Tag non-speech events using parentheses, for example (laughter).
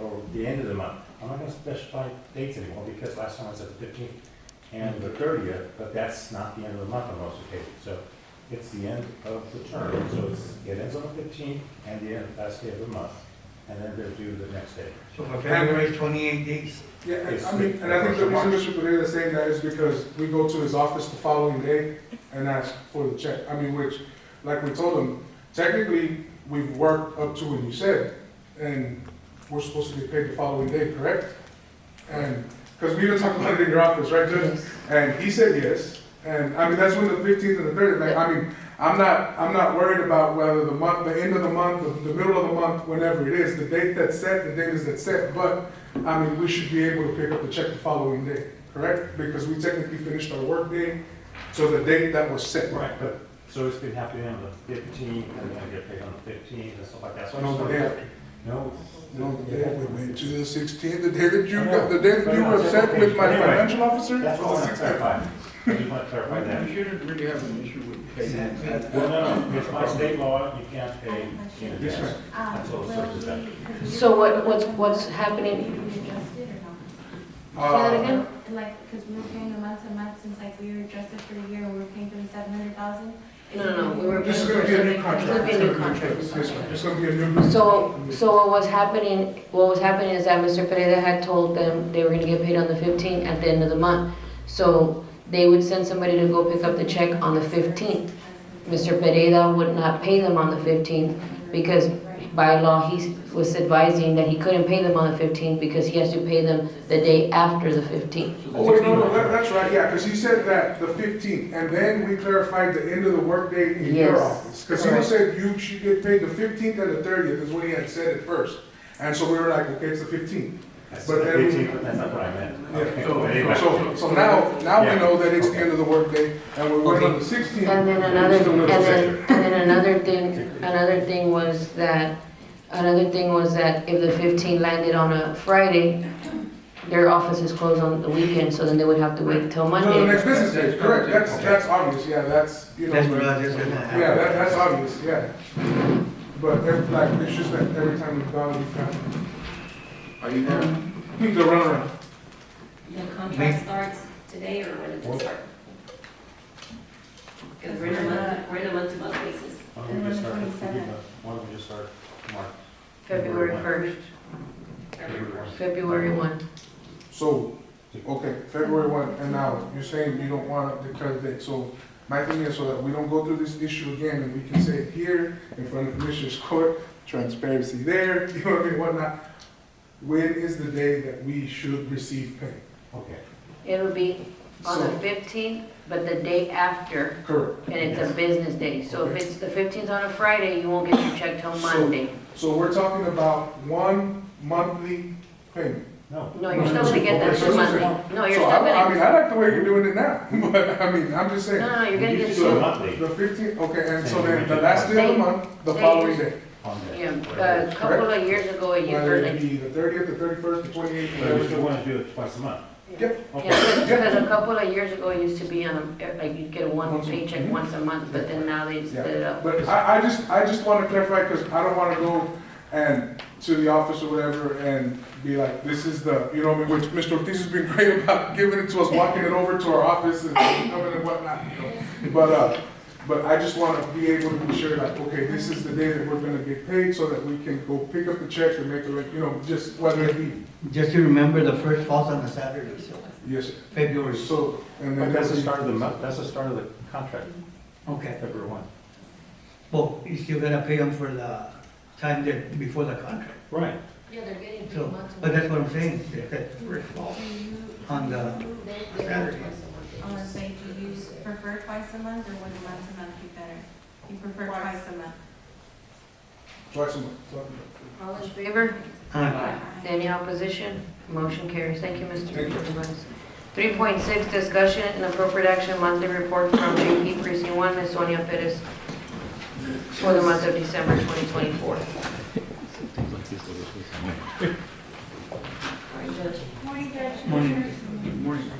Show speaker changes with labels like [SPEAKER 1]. [SPEAKER 1] or the end of the month. I'm not gonna specify dates anymore because last time I said the fifteenth and the thirtieth, but that's not the end of the month on most occasions. So it's the end of the term, so it's, it ends on the fifteenth and the end, last day of the month, and then they're due the next day.
[SPEAKER 2] So for February, twenty-eight days.
[SPEAKER 3] Yeah, and
[SPEAKER 1] It's
[SPEAKER 3] I mean, and I think the
[SPEAKER 1] the-
[SPEAKER 3] reason Mr. Pereira is saying that is because we go to his office the following day and ask for the check. I mean, which, like we told him, technically, we've worked up to when you said, and we're supposed to be paid the following day, correct? And, because we even talked about it in your office, right, Judge? And he said yes, and, I mean, that's when the fifteenth and the thirtieth, like, I mean, I'm not, I'm not worried about whether the month, the end of the month, the, the middle of the month, whenever it is, the date that's set, the date is that's set, but, I mean, we should be able to pick up the check the following day, correct? Because we technically finished our work day to the date that was set.
[SPEAKER 1] Right, but, so it's been happening on the fifteenth, and then I get paid on the fifteenth and stuff like that, so I
[SPEAKER 3] No,
[SPEAKER 1] just
[SPEAKER 3] the
[SPEAKER 1] don't.
[SPEAKER 3] day,
[SPEAKER 1] No.
[SPEAKER 3] no, the day, we went to the sixteenth, the day that you, got- the
[SPEAKER 1] I
[SPEAKER 3] day
[SPEAKER 1] know.
[SPEAKER 3] that you were upset with my
[SPEAKER 1] Anyway,
[SPEAKER 3] financial officer?
[SPEAKER 1] That's all I want
[SPEAKER 3] was the
[SPEAKER 1] to
[SPEAKER 3] 16th.
[SPEAKER 1] clarify. I just want to clarify that.
[SPEAKER 4] You shouldn't really have an issue with payment.
[SPEAKER 1] Well, no, no, it's by state law, you can't pay in
[SPEAKER 3] Yes,
[SPEAKER 1] advance.
[SPEAKER 3] ma'am.
[SPEAKER 1] That's all subject to
[SPEAKER 5] Um,
[SPEAKER 6] So what, what's, what's happening?
[SPEAKER 5] Will we be adjusted or
[SPEAKER 6] Say that
[SPEAKER 3] Uh,
[SPEAKER 6] again?
[SPEAKER 5] not? Like, because we were paying the month to month since like we were adjusted for the year and we were paying for the seven hundred thousand.
[SPEAKER 6] No, no, no, we were-
[SPEAKER 3] This is gonna be a new
[SPEAKER 6] It's gonna
[SPEAKER 3] contract.
[SPEAKER 6] be a new contract.
[SPEAKER 3] Yes, ma'am. It's gonna be a new.
[SPEAKER 6] So, so what was happening, what was happening is that Mr. Pereira had told them they were gonna get paid on the fifteenth at the end of the month. So they would send somebody to go pick up the check on the fifteenth. Mr. Pereira would not pay them on the fifteenth because by law, he was advising that he couldn't pay them on the fifteenth because he has to pay them the day after the fifteenth.
[SPEAKER 3] Oh, wait, no, no, that- that's right, yeah, because he said that, the fifteenth, and then we clarified the end of the workday in your
[SPEAKER 6] Yes,
[SPEAKER 3] office. Because he
[SPEAKER 6] correct.
[SPEAKER 3] said you should get paid the fifteenth and the thirtieth is what he had said at first. And so we were like, okay, it's the fifteenth.
[SPEAKER 1] That's
[SPEAKER 3] But then-
[SPEAKER 1] 15, but that's not what I meant. Okay,
[SPEAKER 3] So,
[SPEAKER 1] anyway.
[SPEAKER 3] so- so now, now we
[SPEAKER 1] Yeah.
[SPEAKER 3] know that it's the end of the workday, and we're waiting on the sixteenth.
[SPEAKER 6] And then another, and then, and then another
[SPEAKER 3] (laughs)
[SPEAKER 6] thing, another thing was that, another thing was that if the fifteen landed on a Friday, their office is closed on the weekend, so then they would have to wait till
[SPEAKER 3] No, the
[SPEAKER 6] Monday.
[SPEAKER 3] next business day, correct, that's, that's obvious, yeah, that's, you know.
[SPEAKER 2] That's what I just gonna have.
[SPEAKER 3] Yeah, that, that's obvious, yeah. But every, like, it's just that every time we've gone, we've got,
[SPEAKER 4] Are you there?
[SPEAKER 3] the runaround.
[SPEAKER 7] The contract starts today or when does it start? Because we're in a month, we're in a month-to-month basis.
[SPEAKER 1] Why don't we just start, why don't we just start March?
[SPEAKER 6] February first, February one.
[SPEAKER 3] So, okay, February one, and now you're saying you don't wanna declare the date, so my thing is so that we don't go through this issue again and we can say it here in front of Commissioners (laughs) Court, transparency there, (laughs) you know what I mean, whatnot. When is the day that we should receive pay?
[SPEAKER 1] Okay.
[SPEAKER 6] It'll be on the fifteenth, but the day after,
[SPEAKER 3] Correct.
[SPEAKER 6] and it's a business day. So if it's the fifteenth on a Friday, you won't get your check till Monday.
[SPEAKER 3] So we're talking about one monthly payment.
[SPEAKER 1] No.
[SPEAKER 6] No, you're still gonna get that
[SPEAKER 3] So
[SPEAKER 6] till
[SPEAKER 3] I'm-
[SPEAKER 6] Monday. No, Oh, you're
[SPEAKER 3] So
[SPEAKER 6] still
[SPEAKER 3] I, I
[SPEAKER 6] gonna,
[SPEAKER 3] mean, I like the way you're doing it now, (laughs) but I mean, I'm just
[SPEAKER 6] no,
[SPEAKER 3] saying.
[SPEAKER 6] no, you're gonna
[SPEAKER 1] You should
[SPEAKER 6] get
[SPEAKER 1] do
[SPEAKER 6] two.
[SPEAKER 1] it monthly
[SPEAKER 3] The fifteenth, okay, and so then the last day of the month, the following day.
[SPEAKER 1] on the.
[SPEAKER 6] Yeah, uh, a couple of years ago, a
[SPEAKER 3] Whether
[SPEAKER 6] year,
[SPEAKER 3] it
[SPEAKER 6] like,
[SPEAKER 3] be the thirtieth, the thirty-first, the twenty-eighth,
[SPEAKER 1] But we still
[SPEAKER 3] whatever.
[SPEAKER 1] want to do it twice a month.
[SPEAKER 3] Yep.
[SPEAKER 1] Okay.
[SPEAKER 6] yeah, because a couple of years ago, it used to be on, a- like, you'd get one
[SPEAKER 3] Once a-
[SPEAKER 6] paycheck
[SPEAKER 3] mhm.
[SPEAKER 6] once a month, but then now they split it up.
[SPEAKER 3] But I, I just, I just wanna clarify, cause I don't wanna go and to the office or whatever and be like, this is the, you know, what I mean, which Mr. Ortiz has been (laughs) great about giving it to us, walking it over to our office and coming and whatnot, you know. But, uh, but I just wanna be able to be sure, like, okay, this is the day that we're gonna get paid, so that we can go pick up the check and make a, like, you know, just whether it be,
[SPEAKER 2] Just to remember, the first falls on a Saturday, so
[SPEAKER 3] yes, sir.
[SPEAKER 2] February.
[SPEAKER 3] so, and then.
[SPEAKER 1] But that's the
[SPEAKER 3] every-
[SPEAKER 1] start of the month, that's the start of the contract,
[SPEAKER 2] Okay,
[SPEAKER 1] February one.
[SPEAKER 2] well, you still gotta pay them for the time that, before the contract.
[SPEAKER 1] Right.
[SPEAKER 6] Yeah, they're getting
[SPEAKER 2] So, but that's what I'm saying, that- that first falls on the Saturday.
[SPEAKER 5] Unless they do use, prefer twice a month or would month to month be better? You prefer twice a month?
[SPEAKER 3] Twice a month.
[SPEAKER 6] All in favor?
[SPEAKER 2] Uh,
[SPEAKER 6] Any opposition? Motion carries. Thank you, Mr.
[SPEAKER 3] Thank you.
[SPEAKER 6] Perez. Three point six, discussion and appropriate action monthly report from JP Precinct One, Ms. Sonia Perez, for the month of December twenty twenty-four.
[SPEAKER 2] Morning. Good morning.